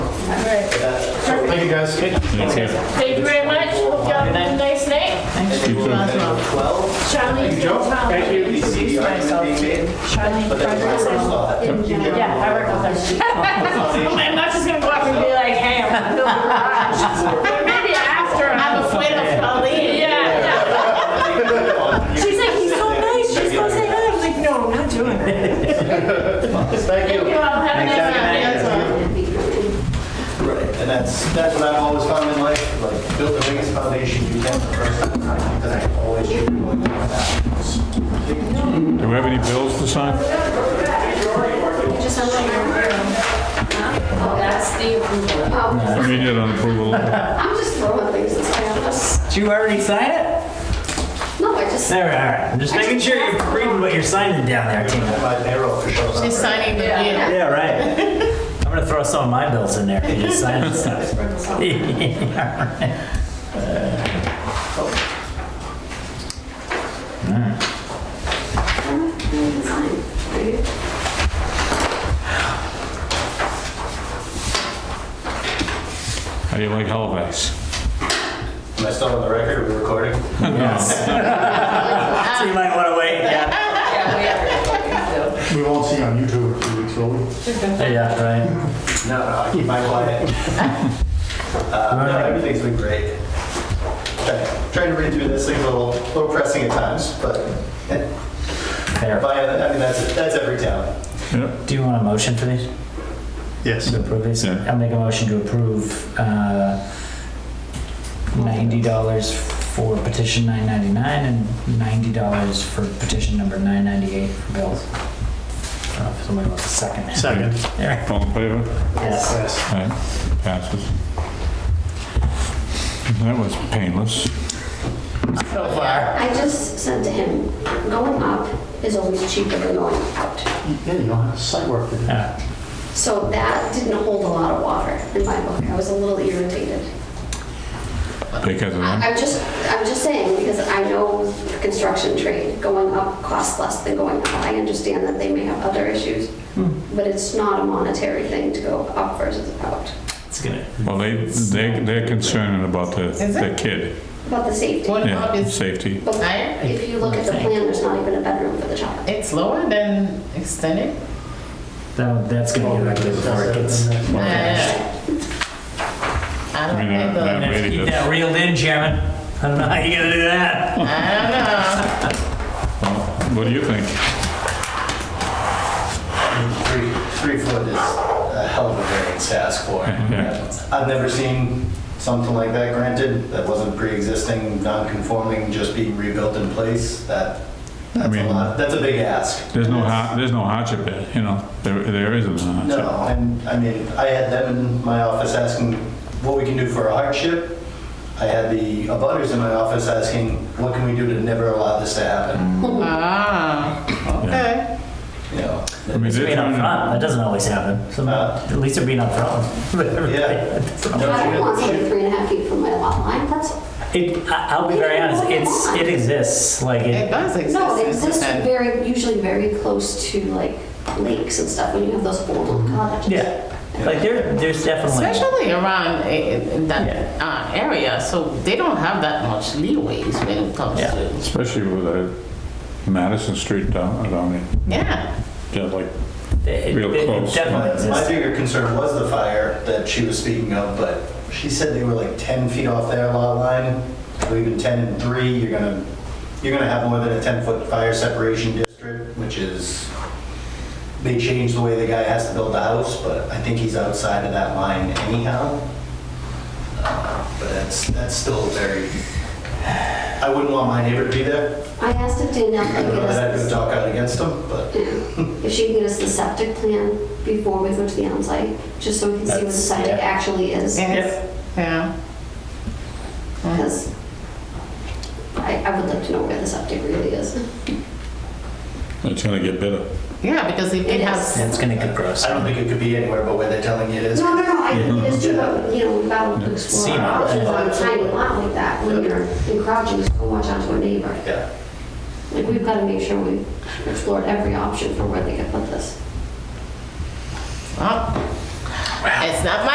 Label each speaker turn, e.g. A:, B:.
A: Right.
B: Uh, So thank you guys.
A: Thank you very much. Hope y'all have a nice night.
C: Thanks.
D: You too.
B: Number 12,
A: Charlie.
B: Joe.
A: Thank
B: we see the argument being made, but then the reference law.
A: Yeah, I work with them. I'm not just gonna go up and be like, hey, I'm gonna build a garage. Maybe after. I'm afraid of Charlie. Yeah. She's like, he's so nice. She's gonna say hi. I'm like, no, I'm not doing it.
B: Thank
A: Thank you
B: you.
A: all. Have a nice night.
B: Right, and that's, that's what I've always found in life, like, build the biggest foundation you can first, because I always do like that.
D: Do we have any bills to sign?
E: Just a little more room.
F: Oh, that's the approval.
D: I mean, you don't approve of
F: Oh, I'm just throwing things at us.
C: Did you already sign it?
F: No, I just,
C: There, all right. I'm just making sure you're reading what you're signing down there, Tina.
B: My arrow for sure.
A: She's signing the deal.
C: Yeah, right. I'm gonna throw some of my bills in there. if You just sign this stuff.
D: How do you like holidays?
B: Am I still on the record? Are we recording?
C: Yes. So you might wanna wait. Yeah.
F: yeah, we are.
G: We won't see on YouTube in two weeks, will we?
C: Yeah, right.
B: No, no, I keep my quiet. Uh, No, everything's been great. Try- Trying to read through this thing's a little, little pressing at times, but,
C: Fair.
B: but I mean, that's, that's every town.
D: Yep.
C: Do you want a motion for these?
G: Yes.
C: To approve these?
D: Yeah.
C: I'll make a motion to approve, uh, ninety dollars for petition nine ninety-nine and ninety dollars for petition number nine ninety-eight for bills. I don't know if somebody wants a second.
G: Second.
C: There.
D: All in favor?
C: Yes.
G: Yes.
D: All right, passes. That was painless.
C: So far.
F: I just said to him, going up is always cheaper than going out.
G: Yeah, you don't have site work to do.
F: So that didn't hold a lot of water in my book. I was a little irritated.
D: Because of
F: I-
D: that?
F: I'm just, I'm just saying, because I know the construction trade, going up costs less than going down. I understand that they may have other issues, but it's not a monetary thing to go up versus out.
C: It's gonna,
D: Well, they, they, they're concerned about the,
A: Is
D: the
A: it?
D: kid.
F: About the safety.
A: What up
D: Yeah,
A: is,
D: safety.
F: But
A: I-
F: if you look at the plan, there's not even a bedroom for the child.
A: it's lower than extended?
C: that, that's gonna get ugly before it gets.
A: Yeah. Uh, I
D: I
A: don't
D: mean,
A: think
D: that- that
A: the,
D: really
C: Keep
D: does.
C: that reeled in, Chairman. I don't know how you're gonna do that.
A: I
D: Well, What do you think?
B: Three, three foot is a hell of a variance to ask for. I've never seen something like that granted, that wasn't pre-existing, non-conforming, just being rebuilt in place, that,
D: I
B: that's a
D: mean-
B: lot, that's a big ask.
D: There's no, har- there's no hardship there, you know, there, there isn't a hardship.
B: No, and I mean, I had them in my office asking what we can do for a hardship. I had the abutters in my office asking, what can we do to never allow this to happen?
A: don't know. Ah, okay.
B: You know,
D: I mean, they're
C: Being
D: trying
C: upfront,
D: to-
C: that doesn't always happen. Some-
B: Uh,
C: At least they're being upfront.
B: yeah.
F: I don't want something three and a half feet from my lot line, that's,
C: It, I- I'll be very honest, it's, it exists, like,
A: It
C: it,
A: does exist.
F: no, it
A: it's
F: exists
A: just-
F: very, usually very close to like lakes and stuff, when you have those old little cottages.
C: yeah. Like, there, there's definitely,
A: Especially around eh, eh, in that uh, area, so they don't have that much leeway when it comes
C: Yeah.
A: to,
D: Especially with uh, Madison Street down, down there,
A: yeah.
D: yeah, like,
C: it
D: Real
C: it
D: close.
C: definitely
B: My my
C: exists.
B: bigger concern was the fire that she was speaking of, but she said they were like 10 feet off their lot line, or even 10 and 3, you're gonna, you're gonna have more than a 10-foot fire separation district, which is, they changed the way the guy has to build the house, but I think he's outside of that line anyhow. Uh, But that's, that's still very, I wouldn't want my neighbor to be there.
F: I asked if Danielle
B: I
F: could
B: don't
F: get
B: know that I
F: us,
B: could talk out against him, but
F: the- if she can get us the septic plan before we go to the onsite, just so we can see what the
C: That's-
F: septic
C: yeah.
F: actually is.
A: Yes. Yeah.
F: Because I, I would like to know where the septic really is.
D: it's gonna get better.
A: Yeah, because if it
F: It
A: has,
F: is.
C: It's gonna get gross.
B: I don't think it could be anywhere but where they're telling you it is.
F: No, no, no, I think it is true, but, you know, we've got to explore
C: Seam.
F: our options on a tiny lot like that, when you're encroaching so much onto a neighbor.
B: Yeah.
F: Like, we've got to make sure we've explored every option for where they could put this.
A: well, oh, it's not my